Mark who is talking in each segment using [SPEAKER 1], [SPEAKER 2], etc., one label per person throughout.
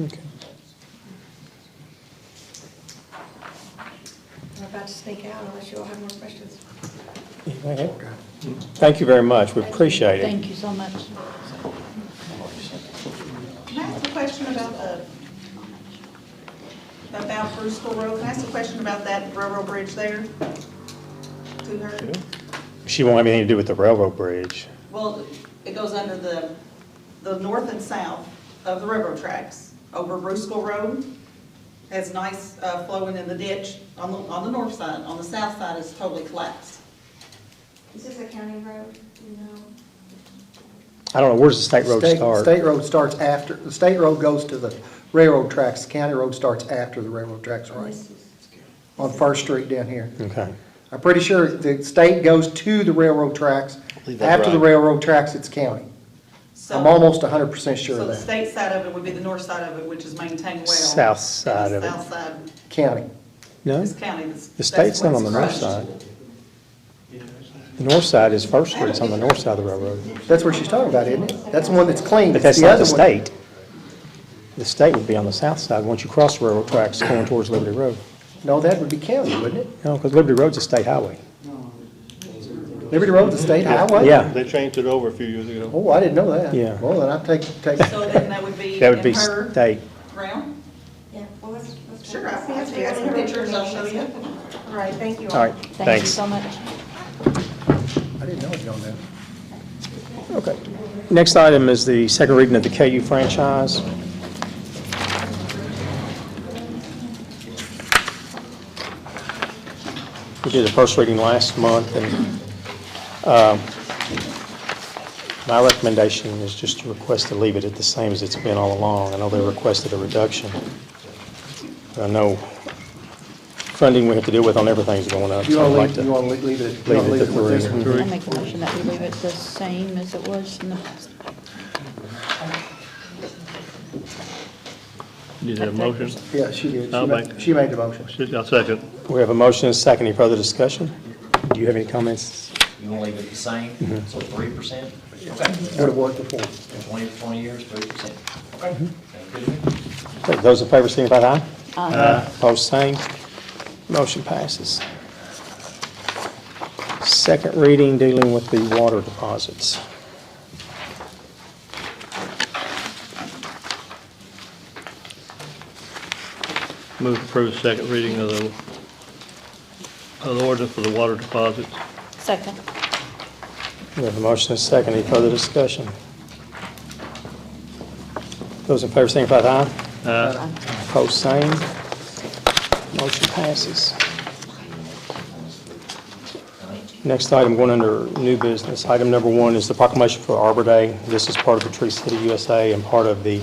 [SPEAKER 1] Okay.
[SPEAKER 2] I'm about to sneak out unless you all have more questions.
[SPEAKER 1] Okay. Thank you very much, we appreciate it.
[SPEAKER 3] Thank you so much.
[SPEAKER 4] Can I ask a question about the, about Bruce School Road? Can I ask a question about that railroad bridge there? To her?
[SPEAKER 1] She won't have anything to do with the railroad bridge.
[SPEAKER 4] Well, it goes under the, the north and south of the railroad tracks over Bruce School Road. Has nice uh, flowing in the ditch on the, on the north side. On the south side is totally collapsed.
[SPEAKER 2] Is this a county road? No.
[SPEAKER 1] I don't know, where's the state road
[SPEAKER 5] State-
[SPEAKER 1] start?
[SPEAKER 5] State road starts after, the state road goes to the railroad tracks, county road starts after the railroad tracks, right? On First Street down here.
[SPEAKER 1] Okay.
[SPEAKER 5] I'm pretty sure the state goes to the railroad tracks.
[SPEAKER 6] believe that's
[SPEAKER 5] After the
[SPEAKER 6] right.
[SPEAKER 5] railroad tracks, it's county.
[SPEAKER 4] So-
[SPEAKER 5] I'm almost hundred percent sure
[SPEAKER 4] So
[SPEAKER 5] of
[SPEAKER 4] the
[SPEAKER 5] that.
[SPEAKER 4] state side of it would be the north side of it, which is maintained well.
[SPEAKER 1] South side
[SPEAKER 4] And
[SPEAKER 1] of it.
[SPEAKER 4] the south side
[SPEAKER 5] County.
[SPEAKER 1] No,
[SPEAKER 4] is county. That's-
[SPEAKER 1] the
[SPEAKER 4] that's
[SPEAKER 1] state's not
[SPEAKER 4] what's
[SPEAKER 1] on the north
[SPEAKER 4] crushed.
[SPEAKER 1] side. The north side is First Street, it's on the north side of the railroad.
[SPEAKER 5] That's what she's talking about, isn't it? That's the one that's clean.
[SPEAKER 1] But
[SPEAKER 5] It's
[SPEAKER 1] that's not
[SPEAKER 5] other
[SPEAKER 1] the
[SPEAKER 5] one.
[SPEAKER 1] state. The state would be on the south side, once you cross the railroad tracks going towards Liberty Road.
[SPEAKER 5] No, that would be county, wouldn't it?
[SPEAKER 1] No, because Liberty Road's a state highway.
[SPEAKER 5] Liberty Road's a state highway?
[SPEAKER 1] Yeah,
[SPEAKER 6] They changed it over a few years ago.
[SPEAKER 5] Oh, I didn't know that.
[SPEAKER 1] Yeah.
[SPEAKER 5] Well, then I take, take,
[SPEAKER 4] So then that would be
[SPEAKER 1] that would be
[SPEAKER 4] in her
[SPEAKER 1] state.
[SPEAKER 4] realm?
[SPEAKER 2] Yeah, well, let's, let's.
[SPEAKER 4] Sure, I can have you guys some pictures, I'll show you.
[SPEAKER 2] All right, thank you all.
[SPEAKER 1] All right,
[SPEAKER 3] Thank you
[SPEAKER 1] thanks.
[SPEAKER 3] so much.
[SPEAKER 5] I didn't know it was on there.
[SPEAKER 1] Okay. Next item is the second reading of the KU franchise. We did the first reading last month, and uh, my recommendation is just to request to leave it at the same as it's been all along. I know they requested a reduction, but I know funding we have to deal with on everything's going up.
[SPEAKER 5] You
[SPEAKER 1] so I'd
[SPEAKER 5] want
[SPEAKER 1] like
[SPEAKER 5] to, you want to leave it, you
[SPEAKER 1] leave
[SPEAKER 5] wanna
[SPEAKER 1] it
[SPEAKER 5] leave
[SPEAKER 1] to
[SPEAKER 5] it with this
[SPEAKER 1] three.
[SPEAKER 5] one?
[SPEAKER 3] I make a motion that we leave it the same as it was in the past.
[SPEAKER 7] You need a motion?
[SPEAKER 5] Yeah, she did. She
[SPEAKER 7] I'll
[SPEAKER 5] made,
[SPEAKER 7] make-
[SPEAKER 5] she made the motion.
[SPEAKER 7] I'll second.
[SPEAKER 1] We have a motion and a second. Any further discussion? Do you have any comments?
[SPEAKER 8] You want to leave it the same, so three percent,
[SPEAKER 5] What it was before.
[SPEAKER 8] twenty, twenty years, three percent. Okay. Sound good to me?
[SPEAKER 1] Okay, Those in favor signify by aye. Aye. Opposed, same. Motion passes. Second reading dealing with the water deposits.
[SPEAKER 7] Move to approve the second reading of the, of the ordinance for the water deposits.
[SPEAKER 3] Second.
[SPEAKER 1] We have a motion and a second. Any further discussion? Those in favor signify by aye.
[SPEAKER 7] Uh,
[SPEAKER 1] Opposed, same. Motion passes. Next item, going under new business. Item number one is the proclamation for Arbor Day. This is part of the Tree City USA and part of the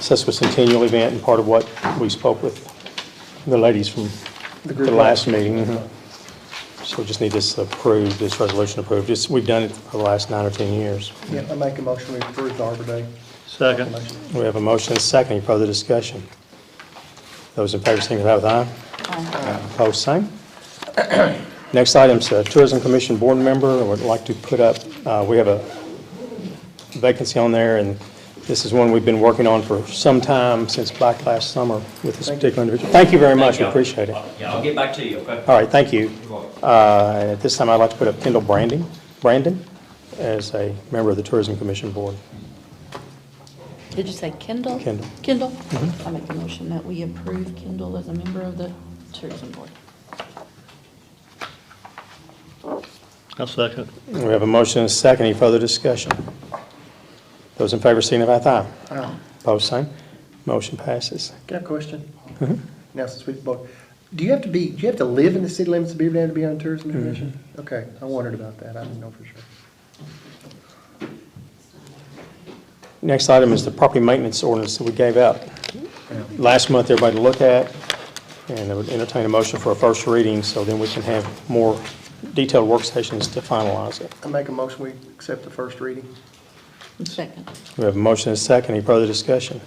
[SPEAKER 1] sesquicentennial event and part of what we spoke with the ladies from the
[SPEAKER 5] The group.
[SPEAKER 1] last meeting. Mm-hmm. So we just need this approved, this resolution approved. It's- We've done it for the last nine or 10 years.
[SPEAKER 5] Yeah, I make a motion to approve the Arbor Day.
[SPEAKER 7] Second.
[SPEAKER 5] Motion.
[SPEAKER 1] We have a motion and a second. Any further discussion? Those in favor signify with aye. Aye. Opposed, same. Next item's uh, Tourism Commission Board Member. I would like to put up, uh, we have a vacancy on there, and this is one we've been working on for some time, since back last summer with this particular individual. Thank you very much. We
[SPEAKER 8] Y'all-
[SPEAKER 1] appreciate it. All
[SPEAKER 8] Yeah, I'll get back to you, okay?
[SPEAKER 1] right, thank you. Uh, At this time, I'd like to put up Kendall Branding, Brandon, as a member of the Tourism Commission Board.
[SPEAKER 3] Did you say Kendall?
[SPEAKER 1] Kendall. Mm-hmm.
[SPEAKER 3] Kendall? I make a motion that we approve Kendall as a member of the tourism board.
[SPEAKER 7] I'll second.
[SPEAKER 1] We have a motion and a second. Any further discussion? Those in favor signify by aye.
[SPEAKER 5] Aye.
[SPEAKER 1] Opposed, same. Motion passes.
[SPEAKER 5] Got a question? Now, since we've both, do you have to be, do you have to live in the city limits of Beaver Dam to be on the tourism commission? Okay, I wondered about that, I didn't know for sure.
[SPEAKER 1] Next item is the property maintenance ordinance that we gave out last month, everybody to look at. And I would entertain a motion for a first reading, so then we can have more detailed work sessions to finalize it.
[SPEAKER 5] I make a motion, we accept the first reading.
[SPEAKER 3] Second.
[SPEAKER 1] We have a motion and a second. Any further discussion?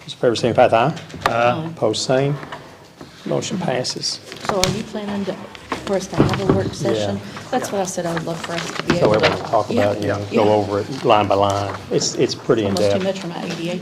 [SPEAKER 1] Those in favor signify by aye.
[SPEAKER 3] Aye.
[SPEAKER 1] Opposed, same. Motion passes.
[SPEAKER 3] So are you planning to, for us to have a work session? That's what I said I would love for us to
[SPEAKER 1] So
[SPEAKER 3] be able to.
[SPEAKER 1] everyone will talk about it,
[SPEAKER 3] Yeah,
[SPEAKER 1] and
[SPEAKER 3] yeah.
[SPEAKER 1] go over it line by line. It's, it's pretty
[SPEAKER 3] Almost
[SPEAKER 1] in-depth.
[SPEAKER 3] too much for my ADA